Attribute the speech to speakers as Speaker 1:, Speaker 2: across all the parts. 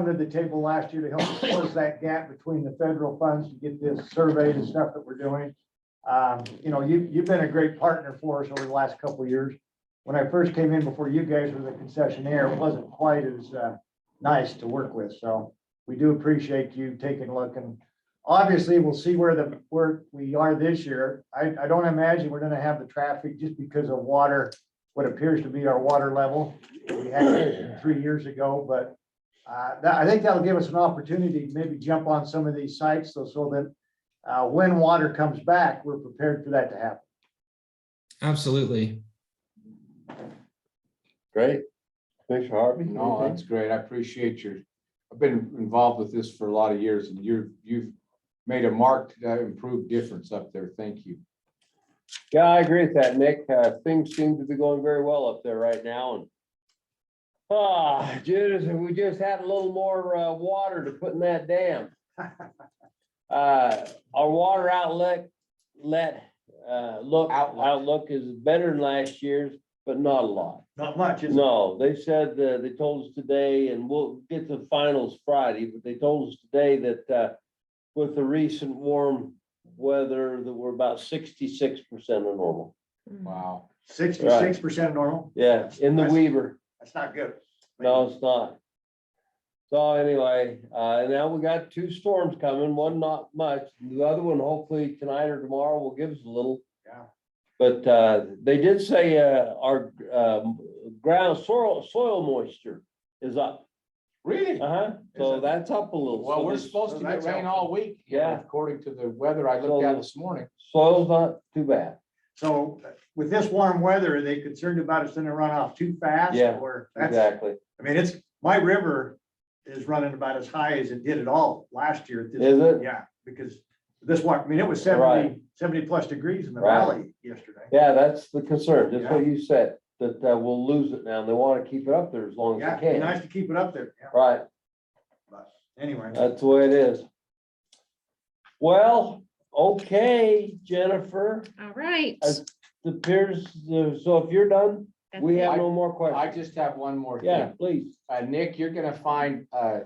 Speaker 1: under the table last year to help us close that gap between the federal funds to get this surveyed and stuff that we're doing. Um, you know, you, you've been a great partner for us over the last couple of years. When I first came in before you guys were the concessionaire, it wasn't quite as, uh, nice to work with, so we do appreciate you taking a look and obviously we'll see where the, where we are this year. I, I don't imagine we're gonna have the traffic just because of water, what appears to be our water level. We had three years ago, but uh, that, I think that'll give us an opportunity to maybe jump on some of these sites, so, so that, uh, when water comes back, we're prepared for that to happen.
Speaker 2: Absolutely.
Speaker 3: Great. Commissioner Harvey?
Speaker 4: No, that's great. I appreciate your, I've been involved with this for a lot of years and you're, you've made a marked, uh, improved difference up there. Thank you.
Speaker 3: Yeah, I agree with that, Nick. Uh, things seem to be going very well up there right now and. Ah, Judas, if we just had a little more, uh, water to put in that dam. Uh, our water outlet, let, uh, look,
Speaker 4: Outlook.
Speaker 3: outlook is better than last year's, but not a lot.
Speaker 1: Not much, is it?
Speaker 3: No, they said, uh, they told us today, and we'll get the finals Friday, but they told us today that, uh, with the recent warm weather, that we're about sixty-six percent of normal.
Speaker 4: Wow.
Speaker 1: Sixty-six percent normal,
Speaker 3: Yeah, in the
Speaker 1: That's-
Speaker 3: Weaver.
Speaker 1: that's not good.
Speaker 3: No, it's not. So anyway, uh, now we got two storms coming, one not much, the other one hopefully tonight or tomorrow will give us a little.
Speaker 1: Yeah.
Speaker 3: But, uh, they did say, uh, our, um, ground soil, soil moisture is up.
Speaker 4: Really?
Speaker 3: Uh-huh,
Speaker 1: Is
Speaker 3: so
Speaker 1: it?
Speaker 3: that's up a little.
Speaker 4: Well,
Speaker 3: So
Speaker 4: we're
Speaker 3: the
Speaker 4: supposed to get
Speaker 1: that's
Speaker 4: rain all week.
Speaker 3: Yeah.
Speaker 4: According to the weather I looked at this morning.
Speaker 3: Soil's not too bad.
Speaker 1: So uh, with this warm weather, are they concerned about us in a runoff too fast?
Speaker 3: Yeah,
Speaker 1: Or, that's,
Speaker 3: Exactly.
Speaker 1: I mean, it's, my river is running about as high as it did at all last year. at this-
Speaker 3: Is it?
Speaker 1: Yeah, because this one, I mean, it was
Speaker 3: Right.
Speaker 1: 70 70 plus degrees in the
Speaker 3: Right.
Speaker 1: valley yesterday.
Speaker 3: Yeah, that's the concern, just what you said, that, uh, we'll lose it now. They want to keep it up there as long
Speaker 1: Yeah,
Speaker 3: as
Speaker 1: it'd
Speaker 3: they
Speaker 1: be
Speaker 3: can.
Speaker 1: nice to keep it up there, yeah,
Speaker 3: Right.
Speaker 1: anyway.
Speaker 3: That's the way it is. Well, okay, Jennifer,
Speaker 5: All right.
Speaker 3: As- it appears, uh, so if you're done,
Speaker 5: That's
Speaker 3: we
Speaker 5: it.
Speaker 3: have no more
Speaker 4: I
Speaker 3: questions.
Speaker 4: just have one more thing.
Speaker 3: Yeah, please.
Speaker 4: Uh, Nick, you're gonna find, uh,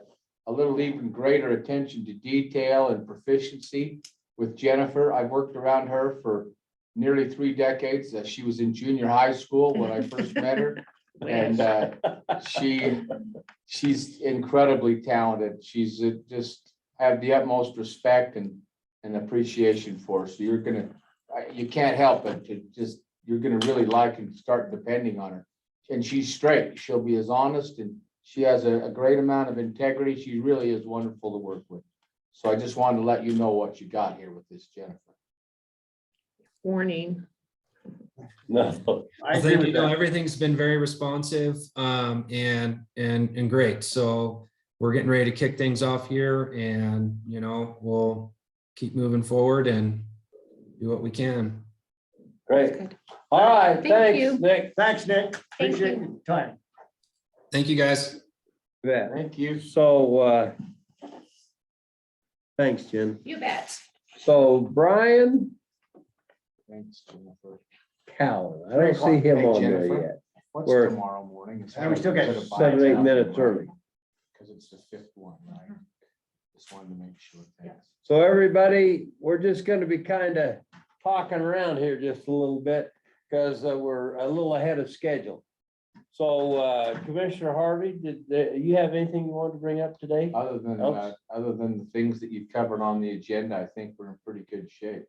Speaker 4: a little even greater attention to detail and proficiency with Jennifer. I've worked around her for nearly three decades. Uh, She was in junior high school when I first met her. And uh, she, she's incredibly talented. She's uh, just, I have the utmost respect and, and appreciation for her. So you're gonna, I- you can't help it to just, you're gonna really like and start depending on her. And she's straight. She'll be as honest and she has a, a great amount of integrity. She really is wonderful to work with. So I just wanted to let you know what you got here with this, Jennifer.
Speaker 5: Warning.
Speaker 3: No,
Speaker 1: I agree
Speaker 2: Thank
Speaker 1: with
Speaker 2: you. No,
Speaker 1: that.
Speaker 2: Everything's been very responsive um, and and and great. So we're getting ready to kick things off here, and you know we'll keep moving forward and do what we can.
Speaker 3: great.
Speaker 5: Good.
Speaker 3: All right,
Speaker 5: Thank you.
Speaker 3: thanks, Nick.
Speaker 1: Thanks, Nick.
Speaker 5: Thank
Speaker 1: Appreciate your time.
Speaker 2: Thank you, guys.
Speaker 3: Yeah,
Speaker 4: Thank you.
Speaker 3: so, uh, thanks, Jen.
Speaker 5: You bet.
Speaker 3: So Brian
Speaker 4: Thanks, Jennifer.
Speaker 3: Cowan, I
Speaker 4: Three
Speaker 3: don't
Speaker 4: o'clock.
Speaker 3: see him
Speaker 4: Hey,
Speaker 3: on there
Speaker 4: Jennifer.
Speaker 3: yet.
Speaker 4: What's
Speaker 3: We're-
Speaker 4: tomorrow morning? It's
Speaker 1: And we still got
Speaker 4: hard to put a
Speaker 3: seven,
Speaker 4: bite
Speaker 3: eight
Speaker 4: down
Speaker 3: minutes
Speaker 4: tomorrow.
Speaker 3: early.
Speaker 4: Cause it's the fifth one, right? Just wanted to make sure. thanks.
Speaker 3: So everybody, we're just gonna be kind of talking around here just a little bit because we're a little ahead of schedule. So uh, Commissioner Harvey, did, did you have anything you wanted to bring up today?
Speaker 4: Other than, uh,
Speaker 3: Else?
Speaker 4: other than the things that you've covered on the agenda, I think we're in pretty good shape.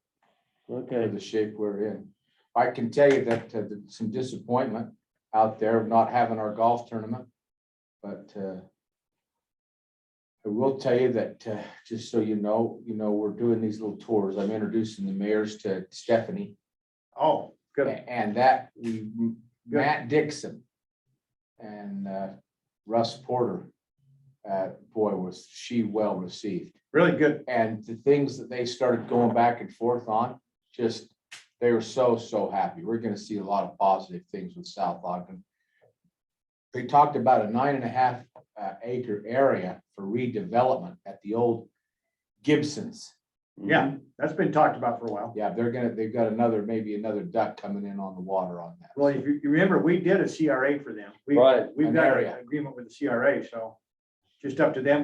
Speaker 4: for
Speaker 3: Okay,
Speaker 4: the shape we're in. I can tell you that uh, th- some disappointment out there of not having our golf tournament, but uh, I will tell you that, uh, just so you know, you know, we're doing these little tours. I'm introducing the mayors to Stephanie.
Speaker 1: Oh,
Speaker 4: a-
Speaker 1: good.
Speaker 4: And that, we Matt Dixon and uh, Russ Porter. uh, Boy, was she well received
Speaker 1: Really good.
Speaker 4: and the things that they started going back and forth on, just, they were so, so happy. We're gonna see a lot of positive things with South Ogden. They talked about a nine and a half uh, acre area for redevelopment at the old Gibson's.
Speaker 1: Yeah, that's been talked about for a while.
Speaker 4: Yeah, they're gonna, they've got another, maybe another duck coming in on the water on that.
Speaker 1: Well, if you you remember, we did a CRA for them. We-
Speaker 3: Right.
Speaker 1: We've
Speaker 4: An
Speaker 1: got
Speaker 4: area.
Speaker 1: an agreement with the CRA, so just up to them to